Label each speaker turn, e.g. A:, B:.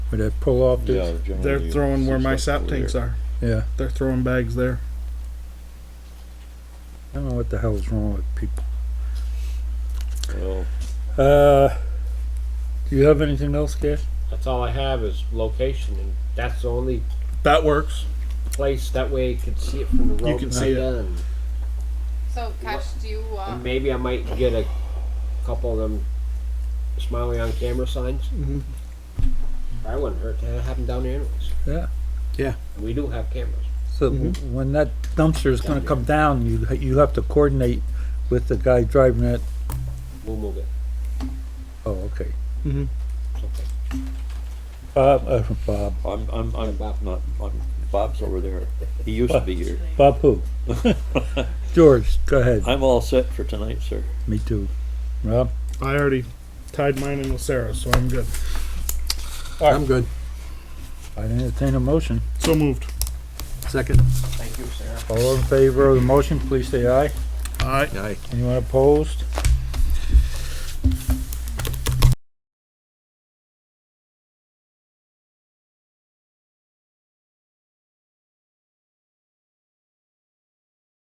A: where they pull off
B: Yeah,
A: this,
B: generally
C: They're
B: you
C: throwing
B: see
C: where my
B: stuff
C: sap
B: over
C: tanks
B: there.
C: are.
A: yeah,
C: They're throwing bags there.
A: I don't know what the hell's wrong with people.
B: Well,
A: Uh, do you have anything else, Cash?
D: That's all I have is location, and that's the only
C: That works.
D: place, that way you can see it from the road.
C: can
D: and
C: see it.
D: kinda, and-
E: So, Cash, do you, uh,
D: And maybe I might get a couple of them smiley on camera signs.
C: Mhm.
D: I wouldn't hurt to have them down there anyways.
A: Yeah.
C: Yeah.
D: We do have cameras.
A: So when that dumpster is gonna come down, you, you have to coordinate with the guy driving it.
D: We'll move it.
A: Oh, okay.
D: It's okay.
A: Bob, uh, Bob,
B: I'm, I'm, I'm
D: Bob.
B: not, I'm, Bob's over there. He used to be here.
A: Bob who? George, go ahead.
B: I'm all set for tonight, sir.
A: Me too. Rob?
C: I already tied mine in with Sarah, so I'm good.
F: I'm good.
A: I entertain a motion.
C: So moved.
F: Second.
D: Thank you, Sarah.
A: All in favor of the motion, please say aye.
C: All right.
F: Aye.
A: Anyone opposed?